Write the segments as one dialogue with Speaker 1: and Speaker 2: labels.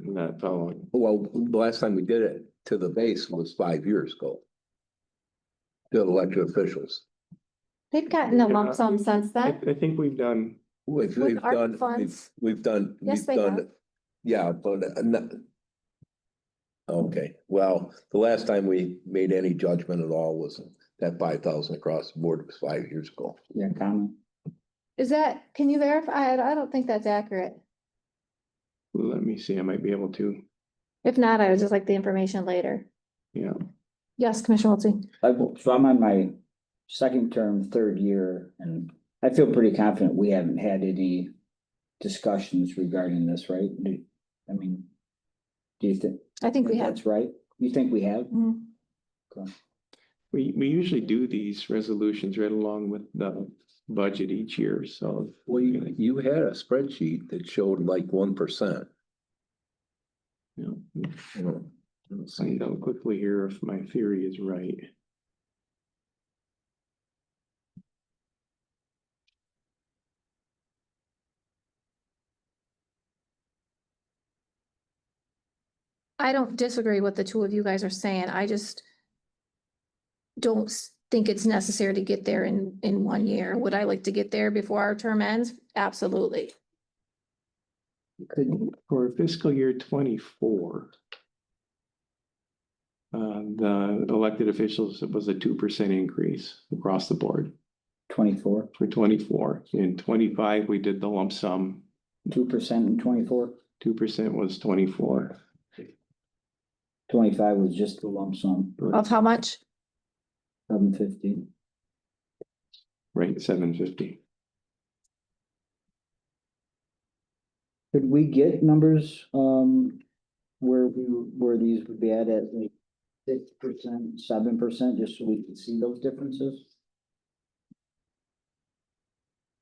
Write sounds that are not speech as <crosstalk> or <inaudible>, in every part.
Speaker 1: Not following.
Speaker 2: Well, the last time we did it to the base was five years ago. To elected officials.
Speaker 3: They've gotten a lump sum since
Speaker 1: I,
Speaker 3: then.
Speaker 1: I think we've done,
Speaker 2: We've,
Speaker 3: With
Speaker 2: we've
Speaker 3: ARPA
Speaker 2: done, we've,
Speaker 3: funds?
Speaker 2: we've done,
Speaker 3: Yes,
Speaker 2: we've
Speaker 3: they
Speaker 2: done.
Speaker 3: have.
Speaker 2: Yeah, but uh, not. Okay, well, the last time we made any judgment at all was that five thousand across the board was five years ago.
Speaker 4: Your comment.
Speaker 3: Is that, can you verify? I I don't think that's accurate.
Speaker 1: let me see, I might be able to,
Speaker 3: If not, I would just like the information later.
Speaker 1: yeah.
Speaker 3: Yes, Commissioner Wiltie.
Speaker 4: I've, so I'm on my second term, third year, and I feel pretty confident we haven't had any discussions regarding this, right? Do, I mean, do you think?
Speaker 3: I think we have.
Speaker 4: That's right? You think we have?
Speaker 3: Mhm.
Speaker 1: We, we usually do these resolutions right along with the budget each year, so.
Speaker 2: Well, you, you had a spreadsheet that showed like one percent.
Speaker 1: yeah.
Speaker 2: Hmm.
Speaker 1: Let's Find out quickly here if my theory is right.
Speaker 3: I don't disagree with the two of you guys are saying. I just don't s- think it's necessary to get there in, in one year. Would I like to get there before our term ends? Absolutely.
Speaker 1: For fiscal year twenty-four. Uh, the elected officials it was a two percent increase across the board
Speaker 4: Twenty-four,
Speaker 1: for twenty-four. In twenty-five, we did the lump sum,
Speaker 4: two percent and twenty-four?
Speaker 1: two percent was twenty-four.
Speaker 4: Twenty-five was just the lump sum,
Speaker 3: Of how much?
Speaker 4: seven fifty.
Speaker 1: Right, seven fifty.
Speaker 4: Could we get numbers, um, where we, where these would be at, at like six percent, seven percent, just so we could see those differences?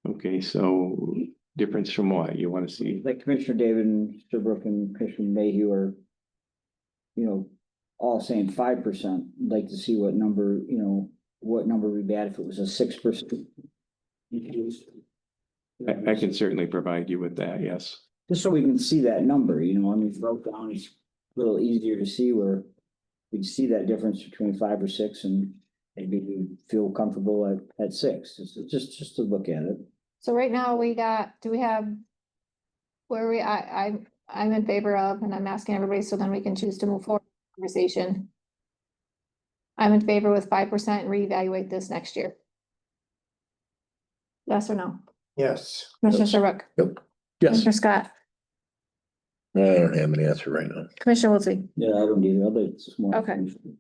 Speaker 1: Okay, so difference from what you want to see?
Speaker 4: Like Commissioner David and Serbrook and Commissioner Mayhew are, you know, all saying five percent, like to see what number, you know, what number we'd be at if it was a six percent.
Speaker 1: I, I can certainly provide you with that, yes.
Speaker 4: Just so we can see that number, you know, I mean, broke down, it's a little easier to see where we can see that difference between five or six and maybe we feel comfortable at, at six, It's just, just to look at it.
Speaker 3: So right now we got, do we have? Where we, I, I, I'm in favor of, and I'm asking everybody, so then we can choose to move forward with the conversation. I'm in favor with five percent and reevaluate this next year. Yes or no?
Speaker 5: Yes.
Speaker 3: Commissioner Serbrook,
Speaker 2: Yes,
Speaker 3: Commissioner Scott,
Speaker 2: I don't have an answer right now.
Speaker 3: Commissioner Wiltie.
Speaker 4: Yeah, I don't either, but it's just more.
Speaker 3: Okay.
Speaker 4: information.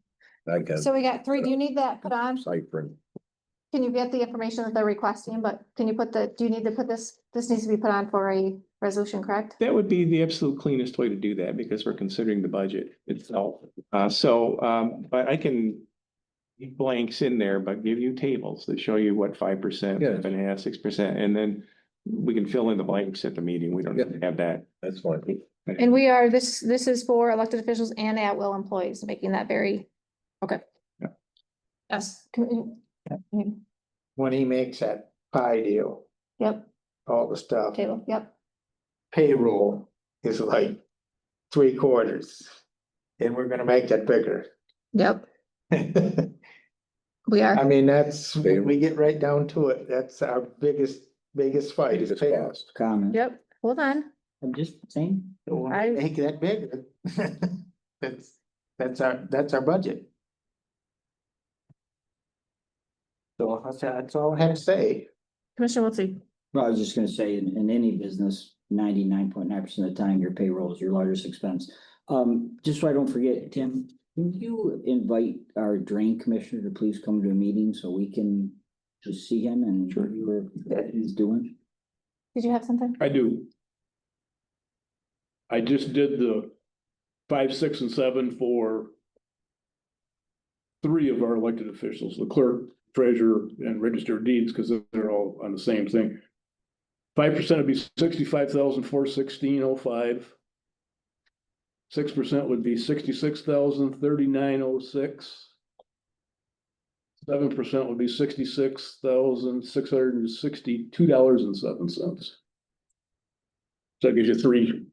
Speaker 2: I got
Speaker 3: So we got three, do you need that put on?
Speaker 2: ciphering.
Speaker 3: Can you get the information that they're requesting, but can you put the, do you need to put this, this needs to be put on for a resolution, correct?
Speaker 1: That would be the absolute cleanest way to do that because we're considering the budget itself. Uh, so, um, but I can leave blanks in there, but give you tables that show you what five percent,
Speaker 2: Yes.
Speaker 1: seven and a half, six percent, and then we can fill in the blanks at the meeting. We don't have to have that.
Speaker 2: That's fine.
Speaker 3: And we are, this, this is for elected officials and at-will employees, making that very, okay.
Speaker 1: Yeah.
Speaker 3: Yes. com- mm,
Speaker 5: When he makes that pie deal,
Speaker 3: Yep,
Speaker 5: all the stuff,
Speaker 3: table, yep.
Speaker 5: payroll is like three quarters. And we're gonna make that bigger. <laughs>
Speaker 3: Yep, we
Speaker 5: I
Speaker 3: are.
Speaker 5: mean, that's, when
Speaker 2: Payroll.
Speaker 5: we get right down to it, that's our biggest, biggest fight is
Speaker 2: Biggest
Speaker 5: payroll.
Speaker 2: cost.
Speaker 4: Comment.
Speaker 3: Yep, hold on.
Speaker 4: I'm just saying.
Speaker 5: We'll
Speaker 3: I-
Speaker 5: Make that bigger. <laughs> That's, that's our, that's our budget. So that's, that's all I have to say.
Speaker 3: Commissioner Wiltie.
Speaker 4: Well, I was just gonna say, in, in any business, ninety-nine point nine percent of the time, your payroll is your largest expense. Um, just so I don't forget, Tim, can you invite our drain commissioner to please come to a meeting so we can just see him and
Speaker 1: Sure.
Speaker 4: hear what he's doing?
Speaker 3: Did you have something?
Speaker 6: I do. I just did the five, six, and seven for three of our elected officials, the clerk, treasurer, and register of deeds, because they're all on the same thing. Five percent would be sixty-five thousand, four sixteen oh five. Six percent would be sixty-six thousand, thirty-nine oh six. Seven percent would be sixty-six thousand, six hundred and sixty-two dollars and seven cents. So that gives you three